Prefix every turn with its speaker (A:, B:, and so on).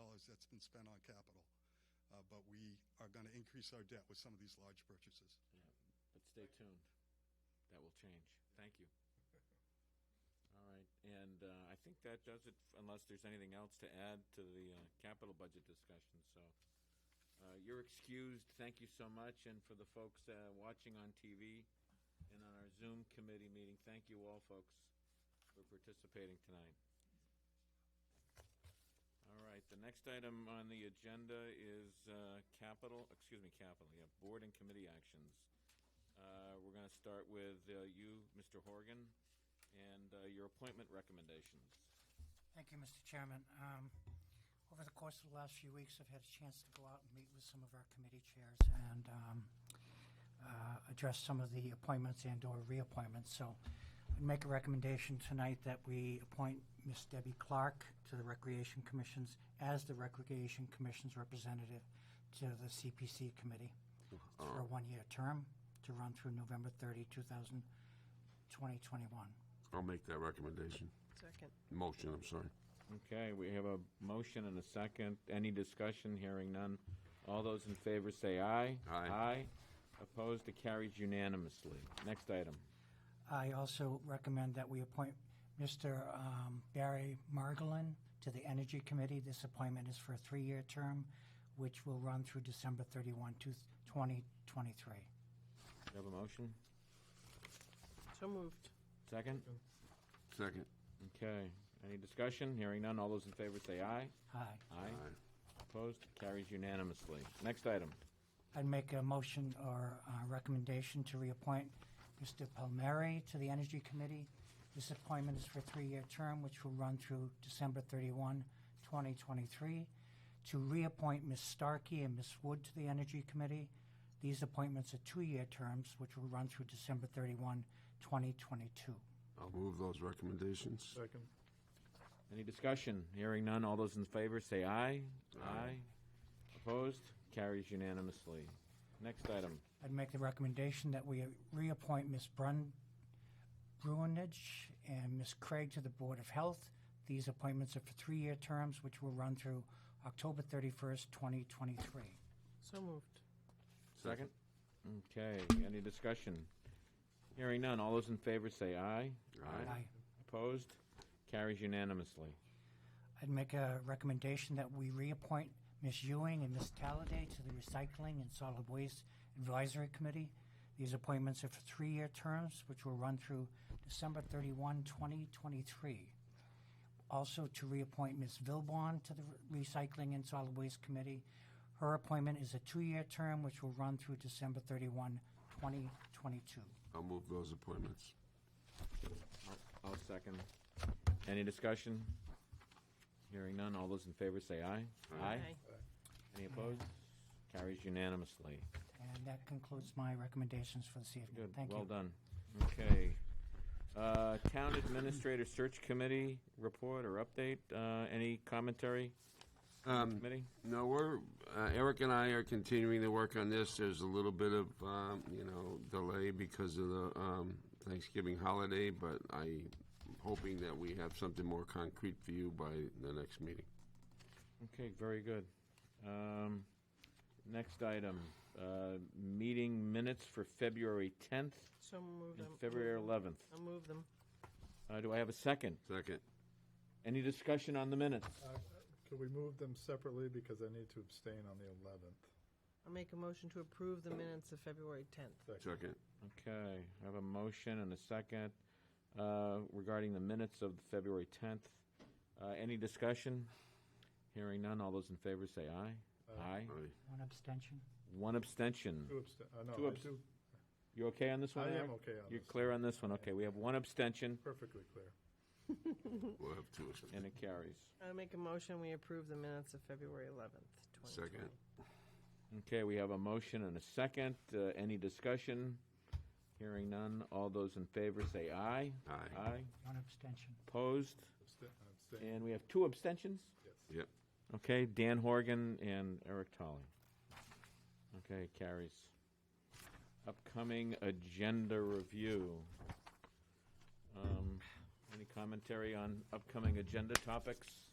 A: that's been spent on capital. Uh, But we are going to increase our debt with some of these large purchases.
B: Yeah, but stay tuned. That will change. Thank you. All right, and uh, I think that does it, unless there's anything else to add to the uh, capital budget discussion, so. uh, You're excused. Thank you so much, and for the folks uh, watching on TV and on our Zoom committee meeting, thank you all, folks, for participating tonight. All right, the next item on the agenda is uh, capital, excuse me, capital, yeah, board and committee actions. Uh, We're going to start with uh, you, Mr. Horgan, and uh, your appointment recommendations.
C: Thank you, Mr. Chairman. Um, Over the course of the last few weeks, I've had a chance to go out and meet with some of our committee chairs and um, uh, address some of the appointments and/or reappointments. So I'd make a recommendation tonight that we appoint Ms. Debbie Clark to the Recreation Commission's, as the Recreation Commission's representative to the CPC Committee for a one-year term to run through November 30, 2000 2021.
D: I'll make that recommendation.
E: Second.
D: Motion, I'm sorry.
B: Okay, we have a motion and a second. Any discussion? Hearing none. All those in favor say aye.
D: Aye.
B: Aye. Opposed? It carries unanimously. Next item.
C: I also recommend that we appoint Mr. um, Barry Margolin to the Energy Committee. This appointment is for a three-year term, which will run through December 31, 2023.
B: Do you have a motion?
E: So moved.
B: Second?
D: Second.
B: Okay. Any discussion? Hearing none. All those in favor say aye.
C: Aye.
B: Aye.
D: Aye.
B: Opposed? It carries unanimously. Next item.
C: I'd make a motion or uh, recommendation to reappoint Mr. Palmieri to the Energy Committee. This appointment is for a three-year term, which will run through December 31, 2023. To reappoint Ms. Starkey and Ms. Wood to the Energy Committee. These appointments are two-year terms, which will run through December 31, 2022.
D: I'll move those recommendations.
F: Second.
B: Any discussion? Hearing none. All those in favor say aye. Aye. Opposed? Carries unanimously. Next item.
C: I'd make the recommendation that we reappoint Ms. Brun Bruinage and Ms. Craig to the Board of Health. These appointments are for three-year terms, which will run through October 31st, 2023.
E: So moved.
B: Second. Okay. Any discussion? Hearing none. All those in favor say aye.
D: Aye.
B: Opposed? Carries unanimously.
C: I'd make a recommendation that we reappoint Ms. Ewing and Ms. Talladay to the Recycling and Solid Waste Advisory Committee. These appointments are for three-year terms, which will run through December 31, 2023. Also, to reappoint Ms. Vilbon to the Recycling and Solid Waste Committee. Her appointment is a two-year term, which will run through December 31, 2022.
D: I'll move those appointments.
B: I'll second. Any discussion? Hearing none. All those in favor say aye.
E: Aye.
B: Any opposed? Carries unanimously.
C: And that concludes my recommendations for this evening.
B: Good,
C: Thank you.
B: well done. Okay. Uh, Town Administrator Search Committee report or update, Uh, any commentary?
D: Um,
B: Committee?
D: No, we're, uh, Eric and I are continuing to work on this. There's a little bit of, um, you know, delay because of the um, Thanksgiving holiday, but I'm hoping that we have something more concrete for you by the next meeting.
B: Okay, very good. Um, Next item, uh, meeting minutes for February 10th
E: So moved.
B: and February 11th.
E: I'll move them.
B: Uh, Do I have a second?
D: Second.
B: Any discussion on the minutes?
F: Can Uh, we move them separately, because I need to abstain on the 11th?
E: I'll make a motion to approve the minutes of February 10th.
D: Second.
B: Okay, I have a motion and a second uh, regarding the minutes of February 10th. Uh, Any discussion? Hearing none, all those in favor say aye.
F: Uh,
B: Aye.
D: Aye.
C: One abstention.
B: One
F: Two
B: abstention.
F: abstain, I know,
B: Two
F: uh, I
B: abs-
F: do,
B: You okay on this one,
F: I am
B: Eric?
F: okay on
B: You're
F: this.
B: clear on this one? Okay, we have one abstention,
F: perfectly clear.
D: We'll have two. abst-
B: and it carries.
E: I'll make a motion, we approve the minutes of February 11th, 2020.
D: Second.
B: Okay, we have a motion and a second. Uh, Any discussion? Hearing none, all those in favor say aye.
D: Aye.
B: Aye.
C: One abstention.
B: Opposed?
F: Abstain- Abstain,
B: And we have two abstentions?
F: yes.
D: Yep.
B: Okay, Dan Horgan and Eric Tolley. Okay, carries. Upcoming agenda review. Um, Any commentary on upcoming agenda topics?